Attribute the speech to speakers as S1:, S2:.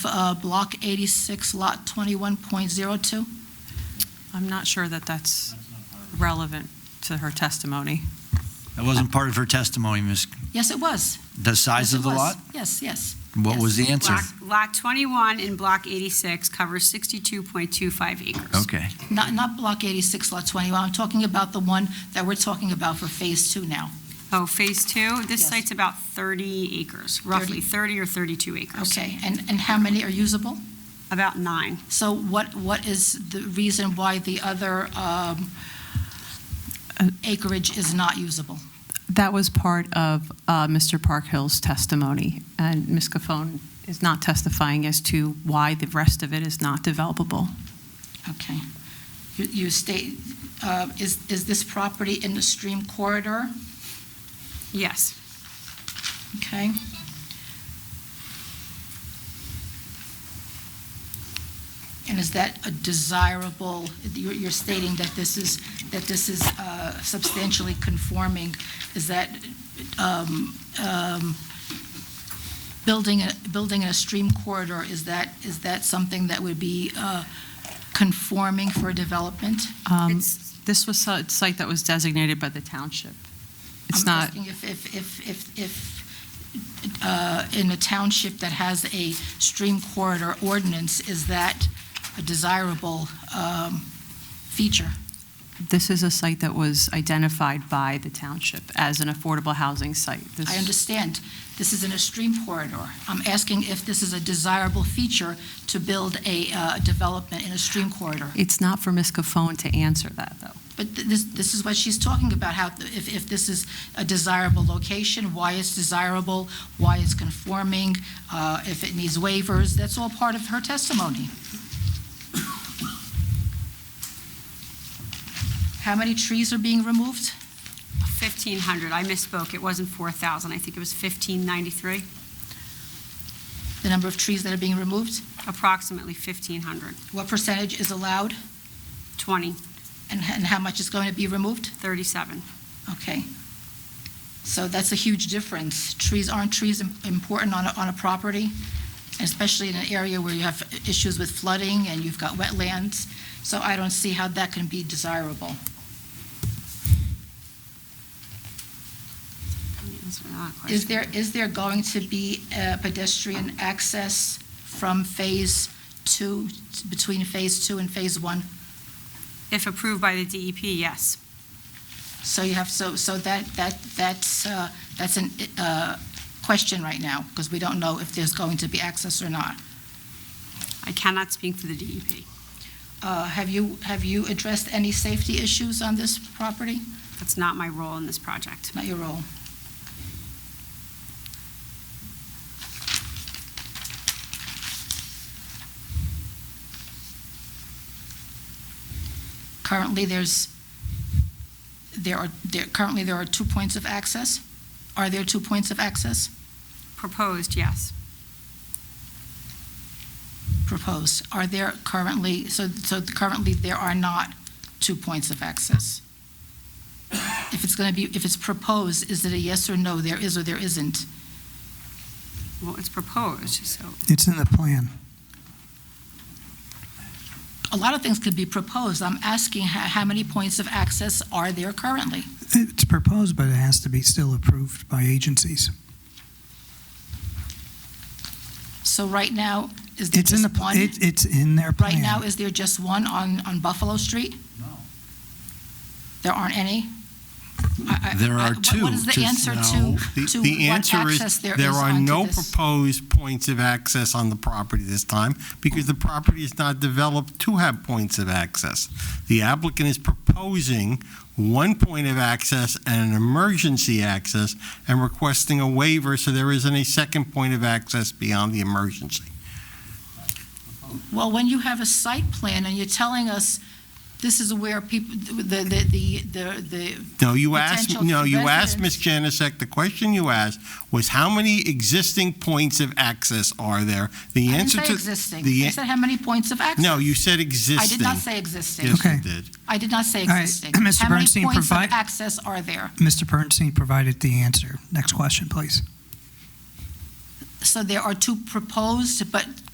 S1: uh, Block 86, Lot 21.02?
S2: I'm not sure that that's relevant to her testimony.
S3: That wasn't part of her testimony, Ms.
S1: Yes, it was.
S3: The
S1: Yes,
S3: size
S1: it
S3: of the
S1: was.
S3: lot?
S1: Yes, yes.
S3: What
S1: Yes.
S3: was the answer?
S4: Block- Lot 21 in Block 86 covers 62.25 acres.
S3: Okay.
S1: Not, not Block 86, Lot 21. I'm talking about the one that we're talking about for Phase 2 now.
S4: Oh, Phase 2, this
S1: Yes.
S4: site's about 30 acres, roughly 30 or 32 acres.
S1: Okay, and, and how many are usable?
S4: About nine.
S1: So what, what is the reason why the other um, acreage is not usable?
S2: That was part of uh, Mr. Parkhill's testimony, and Ms. Cofone is not testifying as to why the rest of it is not developable.
S1: Okay. You- You state, uh, is, is this property in the stream corridor?
S4: Yes.
S1: Okay. And is that a desirable, you're you're stating that this is, that this is uh, substantially conforming, is that um, um, building, a- building in a stream corridor, is that, is that something that would be uh, conforming for development?
S2: Um,
S4: It's-
S2: This was a site that was designated by the township. It's
S1: I'm
S2: not,
S1: asking if, if, if, if, if, uh, in a township that has a stream corridor ordinance, is that a desirable, um, feature?
S2: this is a site that was identified by the township as an affordable housing site. This-
S1: I understand, this is in a stream corridor. I'm asking if this is a desirable feature to build a, uh, development in a stream corridor.
S2: It's not for Ms. Cofone to answer that, though.
S1: But th- this, this is what she's talking about, how, if, if this is a desirable location, why it's desirable, why it's conforming, uh, if it needs waivers, that's all part of her testimony. How many trees are being removed?
S4: 1,500, I misspoke, it wasn't 4,000, I think it was 1,593,
S1: The number of trees that are being removed?
S4: approximately 1,500,
S1: What percentage is allowed,
S4: 20,
S1: and, and how much is going to be removed?
S4: 37.
S1: Okay. So that's a huge difference. Trees, aren't trees im- important on a, on a property? Especially in an area where you have issues with flooding and you've got wetlands. So I don't see how that can be desirable.
S4: That's not a question.
S1: Is there, is there going to be uh, pedestrian access from Phase Two, between Phase Two and Phase One?
S4: If approved by the DEP, yes.
S1: So you have, so, so that, that, that's, uh, that's an, uh, question right now, because we don't know if there's going to be access or not.
S4: I cannot speak for the E DEP.
S1: Uh, Have you, have you addressed any safety issues on this property?
S4: That's not my role in this project.
S1: Not your role. Currently, there's, there are, there, currently, there are two points of access? Are there two points of access
S4: Proposed, yes.
S1: proposed? Are there currently, so, so currently, there are not two points of access? If it's going to be, if it's proposed, is it a yes or no, there is or there isn't?
S4: Well, it's proposed, so
S5: It's in the plan.
S1: a lot of things could be proposed. I'm asking how, how many points of access are there currently?
S5: It's proposed, but it has to be still approved by agencies.
S1: So right now, is there
S5: It's in the,
S1: just
S5: pl-
S1: one?
S5: it- it's in their
S1: Right now,
S5: plan.
S1: is there just one on, on Buffalo Street? No. There aren't any? I- I-
S3: There
S1: I-
S3: are
S1: what-
S3: two
S1: What is the
S3: to-
S1: answer
S6: No,
S1: to,
S6: the-
S1: to
S6: the
S1: what
S6: answer is
S1: access there is
S6: There are no
S1: onto this?
S6: proposed points of access on the property this time because the property is not developed to have points of access. The applicant is proposing one point of access and an emergency access and requesting a waiver so there isn't a second point of access beyond the emergency.
S1: Well, when you have a site plan and you're telling us this is where people, the, the, the, the, the
S6: No, you asked,
S1: Potential
S6: no, you asked, Ms.
S1: residents.
S6: Janasek, the question you asked was how many existing points of access are there? The
S1: I didn't
S6: answer to.
S1: say existing.
S6: the
S1: I
S6: an-
S1: said how many points of access?
S6: No, you said
S1: I
S6: existing.
S1: did not say existing.
S6: Yes,
S5: Okay.
S6: you did.
S1: I did not say
S5: right,
S1: existing.
S5: Mr.
S1: How many
S5: Bernstein,
S1: points of
S5: provide-
S1: access are there?
S5: Mr. Bernstein provided the answer. Next question, please.
S1: So there are two proposed, but